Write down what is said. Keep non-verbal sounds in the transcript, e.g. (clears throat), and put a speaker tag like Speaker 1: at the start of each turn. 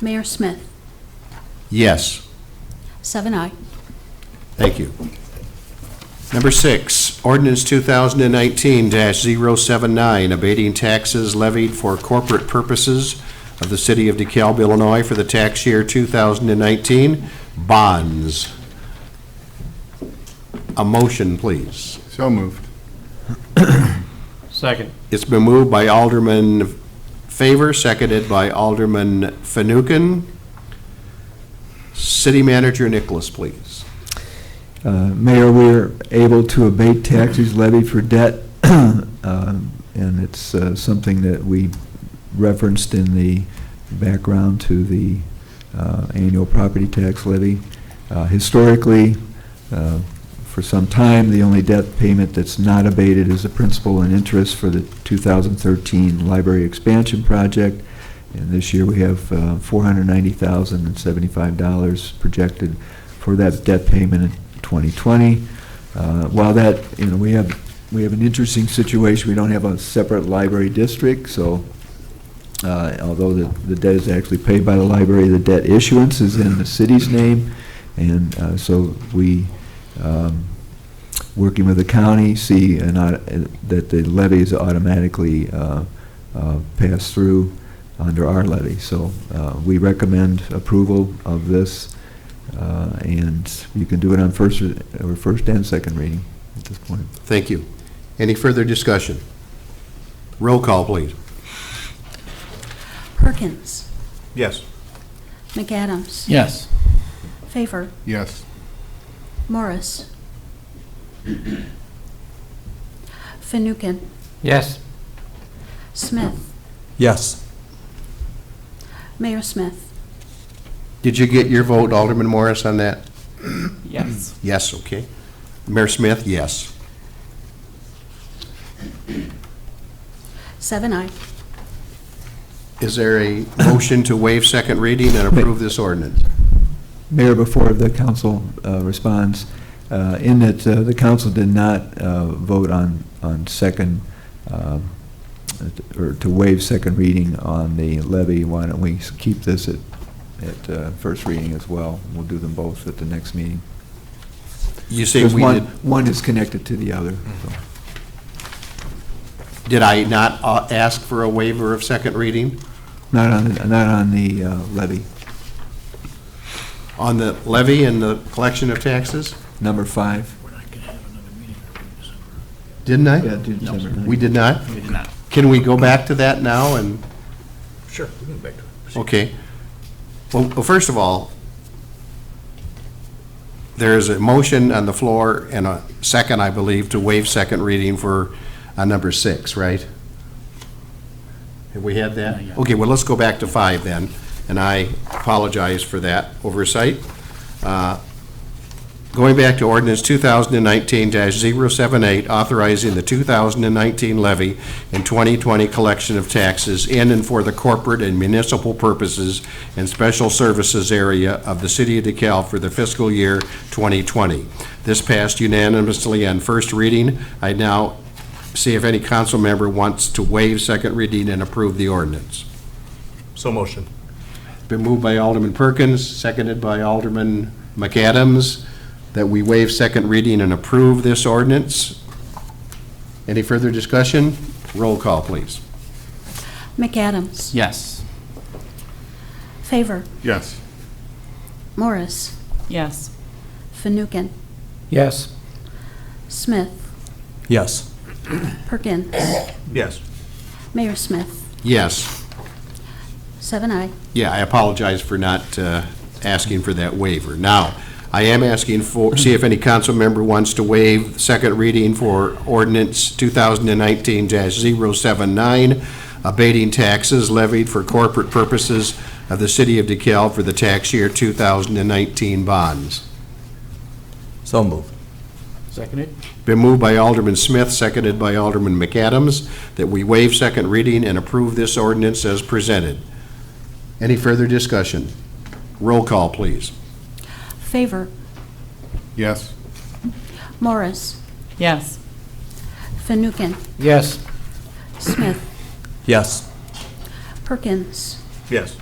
Speaker 1: Mayor Smith,
Speaker 2: Yes.
Speaker 1: seven I.
Speaker 2: Thank you. Number six, ordinance 2019-079, abating taxes levied for corporate purposes of the City of DeKalb, Illinois for the tax year 2019, bonds. A motion, please.
Speaker 3: So moved.
Speaker 4: Second.
Speaker 2: It's been moved by Alderman Favor, seconded by Alderman Fanouken. City Manager Nicholas, please.
Speaker 5: Uh, Mayor, we are able to abate taxes levied for debt, (clears throat) um, and it's uh, something that we referenced in the background to the uh, annual property tax levy. Uh, Historically, uh, for some time, the only debt payment that's not abated is the principal and interest for the 2013 library expansion project, and this year we have uh, $490,075 projected for that debt payment in 2020. Uh, While that, you know, we have, we have an interesting situation, we don't have a separate library district, so uh, although the the debt is actually paid by the library, the debt issuance is in the city's name, and uh, so we, um, working with the county, see an au- that the levy is automatically uh, uh, passed through under our levy. So uh, we recommend approval of this, uh, and you can do it on first, or or first and second reading at this point.
Speaker 2: Thank you. Any further discussion? Roll call, please.
Speaker 1: Perkins,
Speaker 3: Yes.
Speaker 1: McAdams,
Speaker 4: Yes.
Speaker 1: Favor,
Speaker 3: Yes.
Speaker 1: Morris, Fanouken,
Speaker 4: Yes.
Speaker 1: Smith,
Speaker 6: Yes.
Speaker 1: Mayor Smith,
Speaker 2: Did you get your vote, Alderman Morris, on that?
Speaker 4: Yes.
Speaker 2: Yes, okay. Mayor Smith, yes.
Speaker 1: seven I.
Speaker 2: Is there a motion to waive second reading and approve this ordinance?
Speaker 5: Mayor, before the council uh, responds, uh, in that uh, the council did not uh, vote on, on second, um, or to waive second reading on the levy, why don't we keep this at, at uh, first reading as well? We'll do them both at the next meeting.
Speaker 2: You say
Speaker 5: Because
Speaker 2: we
Speaker 5: one,
Speaker 2: did,
Speaker 5: one is connected to the other. so.
Speaker 2: did I not uh, ask for a waiver of second reading?
Speaker 5: Not on, the- not on the uh, levy.
Speaker 2: On the levy and the collection of taxes?
Speaker 5: Number five.
Speaker 2: Didn't
Speaker 5: Yeah,
Speaker 2: I?
Speaker 5: do December ninth.
Speaker 2: We did not?
Speaker 4: We did not.
Speaker 2: Can we go back to that now and?
Speaker 6: Sure, we can go back to it.
Speaker 2: Okay. Well, well, first of all, there is a motion on the floor and a second, I believe, to waive second reading for uh, number six, right? Have we had that? Okay, well, let's go back to five then, and I apologize for that oversight. Uh, Going back to ordinance 2019-078, authorizing the 2019 levy and 2020 collection of taxes in and for the corporate and municipal purposes and special services area of the city of DeKalb for the fiscal year 2020. This passed unanimously on first reading. I now see if any council member wants to waive second reading and approve the ordinance.
Speaker 6: So motion.
Speaker 2: Been moved by Alderman Perkins, seconded by Alderman McAdams, that we waive second reading and approve this ordinance. Any further discussion? Roll call, please.
Speaker 1: McAdams,
Speaker 4: Yes.
Speaker 1: Favor,
Speaker 3: Yes.
Speaker 1: Morris,
Speaker 7: Yes.
Speaker 1: Fanouken,
Speaker 4: Yes.
Speaker 1: Smith,
Speaker 6: Yes.
Speaker 1: Perkins,
Speaker 6: Yes.
Speaker 1: Mayor Smith,
Speaker 2: Yes.
Speaker 1: seven I.
Speaker 2: Yeah, I apologize for not uh, asking for that waiver. Now, I am asking for, see if any council member wants to waive second reading for ordinance 2019-079, abating taxes levied for corporate purposes of the city of DeKalb for the tax year 2019 bonds.
Speaker 6: So moved.
Speaker 4: Seconded?
Speaker 2: Been moved by Alderman Smith, seconded by Alderman McAdams, that we waive second reading and approve this ordinance as presented. Any further discussion? Roll call, please.
Speaker 1: Favor,
Speaker 3: Yes.
Speaker 1: Morris,
Speaker 7: Yes.
Speaker 1: Fanouken,
Speaker 4: Yes.
Speaker 1: Smith,
Speaker 6: Yes.
Speaker 1: Perkins,
Speaker 6: Yes.